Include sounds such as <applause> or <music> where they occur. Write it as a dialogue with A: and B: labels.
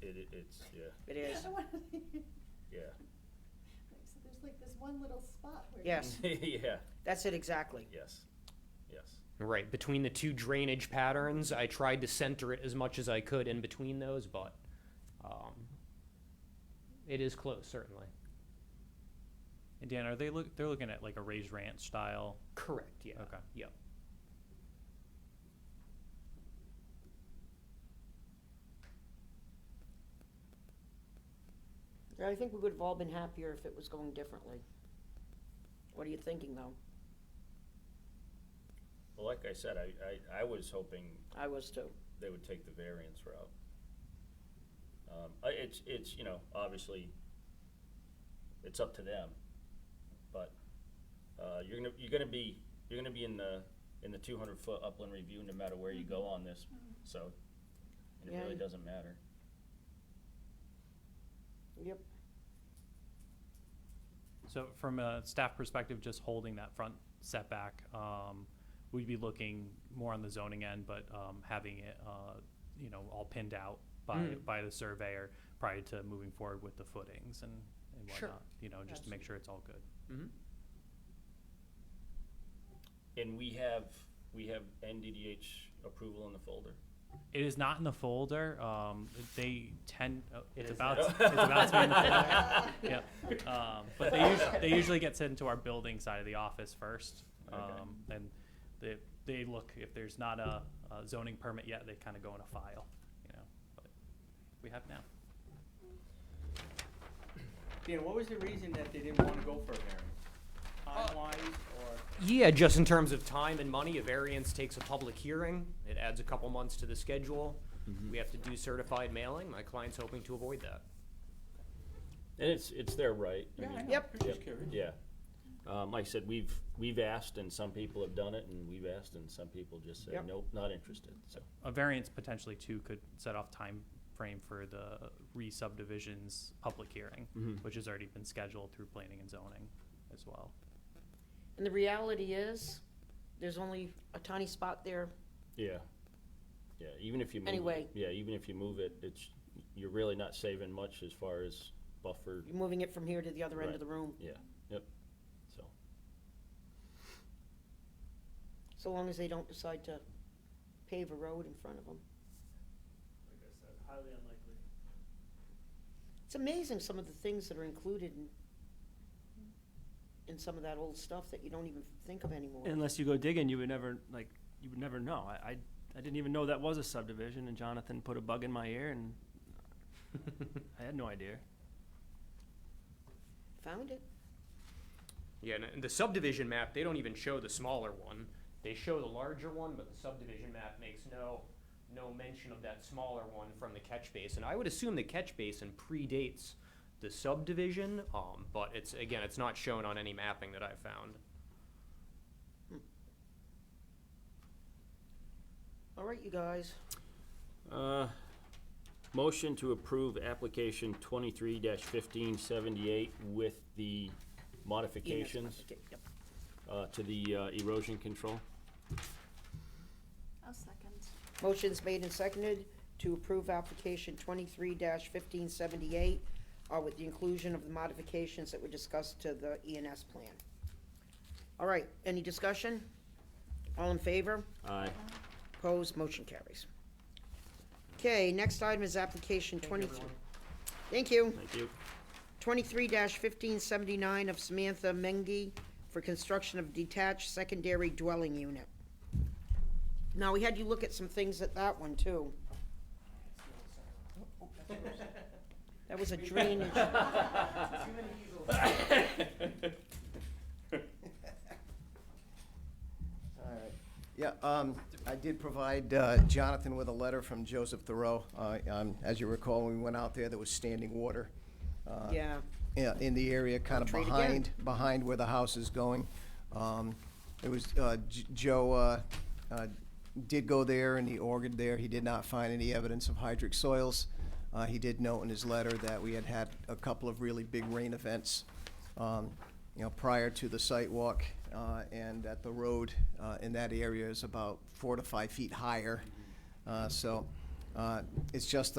A: It, it's, yeah,
B: <laughs>
C: It is.
A: yeah. <laughs>
B: Like, So there's like this one little spot where. you-
C: Yes.
A: Yeah,
C: That's it exactly.
A: yes, yes.
D: Right, between the two drainage patterns, I tried to center it as much as I could in between those, but um, it is close, certainly.
E: And Dan, are they look, they're looking at like a raised ranch style?
D: Correct, yeah.
E: Okay.
D: Yep.
C: I think we would have all been happier if it was going differently. What are you thinking, though?
A: Well, like I said, I, I, I was hoping
C: I was too.
A: they would take the variance route. Um, I, it's, it's, you know, obviously, it's up to them, but, uh, you're gonna, you're gonna be, you're gonna be in the, in the two hundred foot upland review no matter where you go on this, so, and it
C: Yeah,
A: really
C: you-
A: doesn't matter.
C: Yep.
E: So from a staff perspective, just holding that front setback, um, we'd be looking more on the zoning end, but, um, having it, uh, you know, all pinned out by,
D: Mm.
E: by the surveyor prior to moving forward with the footings and, and
D: Sure.
E: whatnot. You know, just to make sure it's all good.
D: Mm-hmm.
A: And we have, we have NDDH approval in the folder.
E: It is not in the folder, um, they tend, oh, it's
D: is
E: about,
A: now.
E: it's about to be in the
C: <laughs>
E: folder. Yep. Um, but they usually, they usually get sent to our building side of the office first.
A: Okay.
E: Um, and they, they look, if there's not a, a zoning permit yet, they kind of go in a file, you know, but we have now.
F: Dan, what was the reason that they didn't wanna go for a variance? Time-wise, or,
D: Yeah, just in terms of time and money, a variance takes a public hearing. It adds a couple months to the schedule.
E: Mm-hmm.
D: We have to do certified mailing. My client's hoping to avoid that.
A: And it's, it's their right. I mean,
F: yeah, I know,
C: Yep.
F: I'm just curious.
A: Yeah. Um, like I said, we've, we've asked and some people have done it and we've asked and some people just say,
D: Yep.
A: nope, not interested, so.
E: A variance potentially too could set off time frame for the re-subdivision's public hearing,
G: Mm-hmm.
A: Mhm.
E: which has already been scheduled through planning and zoning as well.
C: And the reality is, there's only a tiny spot there.
A: Yeah. Yeah, even if you move. it-
C: Anyway.
A: Yeah, even if you move it, it's, you're really not saving much as far as buffer,
C: You're moving it from here to the other end of the room,
A: yeah, yep, so.
C: so long as they don't decide to pave a road in front of them.
G: like I said, highly unlikely.
C: It's amazing some of the things that are included in, in some of that old stuff that you don't even think of anymore.
G: Unless you go digging, you would never like you would never know. I, I I didn't even know that was a subdivision, and Jonathan put a bug in my ear, and
E: <laughs>
G: I had no idea.
C: Found it.
D: Yeah, and- and the subdivision map, they don't even show the smaller one. They show the larger one, but the subdivision map makes no, no mention of that smaller one from the catch basin. I would assume the catch basin predates the subdivision, um, but it's, again, it's not shown on any mapping that I've found.
C: All right, you guys.
A: Uh, motion to approve application twenty-three fifteen seventy-eight with the
C: Ian has-
A: modifications,
C: okay, yep.
A: uh, to the uh, erosion control.
B: I'll second.
C: Motion's made and seconded to approve application twenty-three fifteen seventy-eight, uh, with the inclusion of the modifications that were discussed to the ENS plan. All right, any discussion? All in favor?
A: Aye.
C: Opposed, motion carries. Okay, next item is application twenty-three. Thank you.
A: Thank you.
C: Twenty-three fifteen seventy-nine of Samantha Mengi for construction of detached secondary dwelling unit. Now, we had you look at some things at that one, too. That was a drainage.
H: All right. Yeah, um, I did provide uh, Jonathan with a letter from Joseph Thoreau. Uh, um, As you recall, when we went out there, there was standing water. uh,
C: Yeah,
H: yeah, in the area, kind of
C: Treat again.
H: behind, behind where the house is going. Um, It was, uh, J- Joe uh, uh, did go there and he ordered there. He did not find any evidence of hydric soils. Uh, He did note in his letter that we had had a couple of really big rain events, um, you know, prior to the site walk, uh, and that the road uh, in that area is about four to five feet higher. Uh, So uh, it's just